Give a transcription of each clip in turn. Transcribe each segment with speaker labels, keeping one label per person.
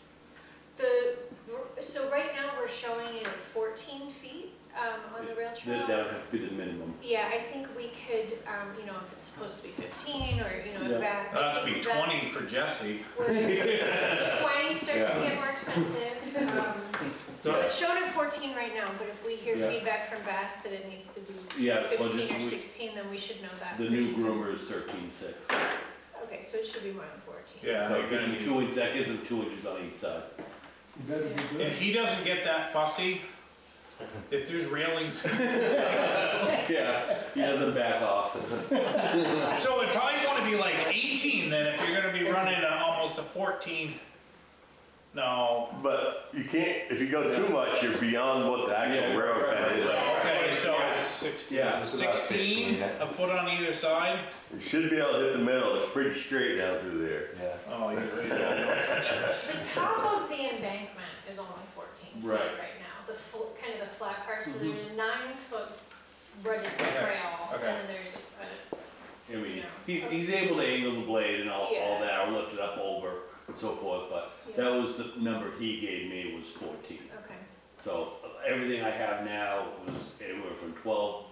Speaker 1: um, from, um, you know, if it's supposed to be 15 or, you know,
Speaker 2: Yeah.
Speaker 1: that.
Speaker 3: That'll have to
Speaker 1: I
Speaker 3: be
Speaker 1: think
Speaker 3: 20
Speaker 1: that's
Speaker 3: for Jesse.
Speaker 1: where 20 starts to get more expensive. Um, So it's shown at 14 right now, but if we hear
Speaker 2: Yeah.
Speaker 1: feedback from Bass that it needs to be
Speaker 2: Yeah, well,
Speaker 1: 15 or
Speaker 2: this,
Speaker 1: 16, then we should know that.
Speaker 2: the new
Speaker 1: pretty soon.
Speaker 2: groomer is thirteen six.
Speaker 1: Okay, so it should be more than 14.
Speaker 3: Yeah,
Speaker 2: So
Speaker 3: they're gonna
Speaker 2: it's
Speaker 3: need-
Speaker 2: two inch, that gives them two inches on each side.
Speaker 4: You better be
Speaker 3: If
Speaker 4: good.
Speaker 3: he doesn't get that fussy, if there's railings,
Speaker 2: Yeah, he doesn't back off.
Speaker 3: so it'd probably wanna be like 18 then if you're gonna be running a- almost a 14. No,
Speaker 5: But you can't, if you go too much, you're beyond what the
Speaker 2: Yeah.
Speaker 5: actual railroad bed is.
Speaker 3: okay, so
Speaker 2: Yeah,
Speaker 3: 16, a foot on either side?
Speaker 5: You should be able to hit the middle, it's pretty straight down through there.
Speaker 3: Oh, you're right.
Speaker 1: The top of the embankment is only 14
Speaker 2: Right. Mm-hmm.
Speaker 1: right now, the full, kind of the flat part, so there's a nine-foot running trail, and
Speaker 3: okay.
Speaker 1: then there's
Speaker 2: I
Speaker 1: a-
Speaker 2: mean, he, he's able to angle the blade and all, all that, or lift it up over and so forth, but that was the number he gave me was fourteen.
Speaker 1: a, okay.
Speaker 2: So everything I have now was anywhere from twelve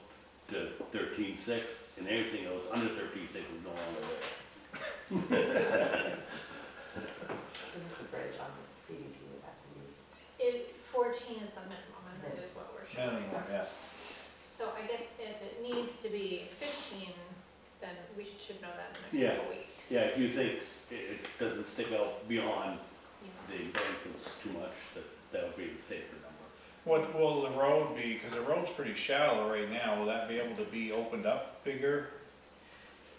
Speaker 2: to thirteen six, and everything that was under thirteen six was no longer there.
Speaker 6: This is the bridge on the CDT with that thing.
Speaker 1: It, 14 is the minimum, I think is what we're showing.
Speaker 2: Oh,
Speaker 3: Yeah.
Speaker 1: So I guess if it needs to be 15, then we should know that in the
Speaker 2: Yeah.
Speaker 1: next couple weeks.
Speaker 2: Yeah, if you think s- it, it doesn't stick out beyond
Speaker 1: Yeah.
Speaker 2: the embankments too much, that, that would be the safer number.
Speaker 3: What will the road be, because the road's pretty shallow right now, will that be able to be opened up bigger?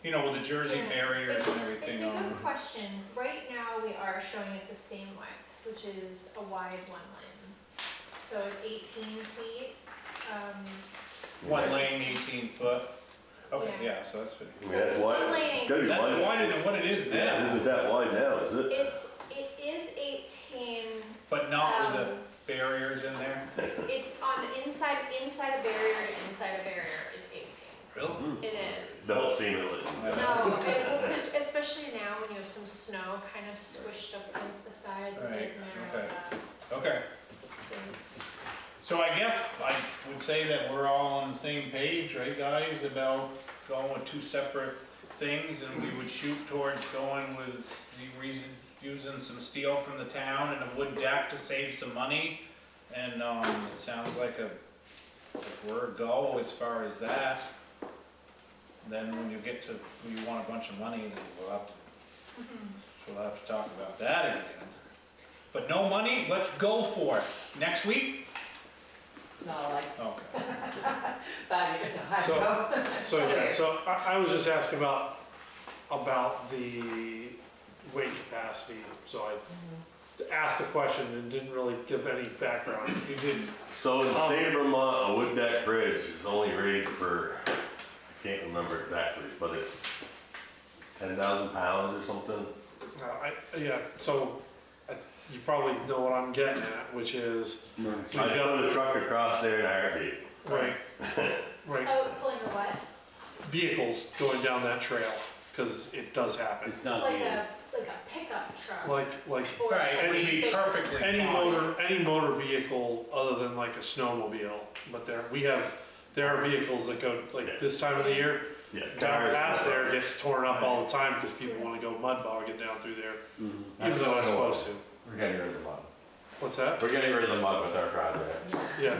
Speaker 3: You know, with the Jersey
Speaker 1: Yeah,
Speaker 3: barriers
Speaker 1: it's-
Speaker 3: and everything
Speaker 1: It's a good
Speaker 3: on.
Speaker 1: question. Right now, we are showing it the same width, which is a wide one lane. So it's 18 feet. um,
Speaker 3: One lane, eighteen foot. Okay,
Speaker 1: Yeah.
Speaker 3: yeah, so that's pretty.
Speaker 5: I mean, that's wide, it's gotta be wide.
Speaker 3: That's wider than what it is
Speaker 5: Yeah, it
Speaker 3: now,
Speaker 5: isn't that wide now, is it?
Speaker 1: It's, it is 18,
Speaker 3: but not with
Speaker 1: um,
Speaker 3: the barriers in there.
Speaker 1: it's on the inside, inside a barrier to inside a barrier is 18.
Speaker 3: Really?
Speaker 1: It is.
Speaker 5: Don't seem it.
Speaker 1: No, and es- especially now when you have some snow kind of squished up against the sides, it uh,
Speaker 3: Right,
Speaker 1: does narrow
Speaker 3: okay.
Speaker 1: that.
Speaker 3: Okay,
Speaker 1: So
Speaker 3: so I guess I would say that we're all on the same page, right, guys, about going with two separate things, and we would shoot towards going with the reason, using some steel from the town and a wood deck to save some money. And, um, it sounds like a, like we're a go as far as that. Then when you get to, when you want a bunch of money, then we'll have to, so we'll have to talk about that again. But no money, let's go for it. Next week?
Speaker 6: No, like,
Speaker 3: Okay.
Speaker 6: that, you know, I
Speaker 7: So-
Speaker 6: go.
Speaker 7: So, yeah, so I, I was just asking about, about the weight capacity, so I asked the question and didn't really give any background.
Speaker 3: You didn't.
Speaker 5: So in the state of Vermont, a wood deck bridge is only rated for, I can't remember exactly, but it's ten thousand pounds or something.
Speaker 7: Uh, I, yeah, so I- you probably know what I'm getting at, which is,
Speaker 5: I got a truck across there in a heartbeat.
Speaker 7: right, right,
Speaker 1: Oh, pulling a what?
Speaker 7: vehicles going down that trail, because it does happen.
Speaker 2: It's not
Speaker 1: Like
Speaker 2: the,
Speaker 1: a, like a pickup truck?
Speaker 7: Like, like
Speaker 1: or
Speaker 3: Right, it would
Speaker 1: something
Speaker 3: be
Speaker 1: big.
Speaker 3: perfectly fine.
Speaker 7: any motor, any motor vehicle other than like a snowmobile, but there, we have, there are vehicles that go, like this time of the year,
Speaker 5: Yeah.
Speaker 7: Down
Speaker 5: cars-
Speaker 7: past there gets torn up all the time because people want to go mud bogging down through there, even though I'm supposed to.
Speaker 8: We're getting rid of the mud.
Speaker 7: What's that?
Speaker 8: We're getting rid of the mud with our project.
Speaker 7: Yeah.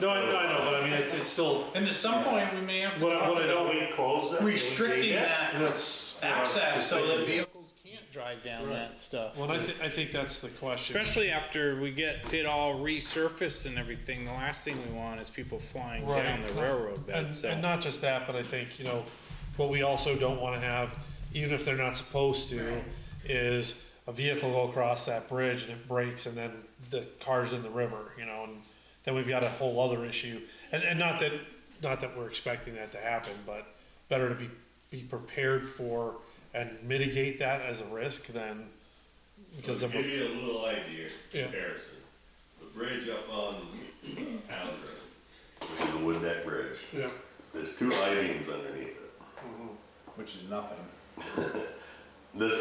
Speaker 7: No, I, no, I know, but I mean, it, it's still,
Speaker 3: And at some point, we may have to
Speaker 7: what I, what
Speaker 3: talk
Speaker 7: I don't,
Speaker 3: about restricting that
Speaker 7: that's. what I was
Speaker 3: access so that
Speaker 7: thinking.
Speaker 3: vehicles can't drive down that stuff.
Speaker 7: Well, I think, I think that's the question.
Speaker 3: Especially after we get it all resurfaced and everything, the last thing we want is people flying
Speaker 7: Right.
Speaker 3: down the railroad bed,
Speaker 7: And,
Speaker 3: so.
Speaker 7: and not just that, but I think, you know, what we also don't want to have, even if they're not supposed to, is a vehicle go across that bridge and it breaks and then the car's in the river, you know, and then we've got a whole other issue. And, and not that, not that we're expecting that to happen, but better to be, be prepared for and mitigate that as a risk than, because
Speaker 5: So
Speaker 7: of,
Speaker 5: to give you a little idea,
Speaker 7: Yeah.
Speaker 5: comparison, the bridge up on Allen Road, which is a wood deck bridge,
Speaker 7: yeah,
Speaker 5: there's two I-beams underneath it.
Speaker 3: Which is nothing.
Speaker 5: This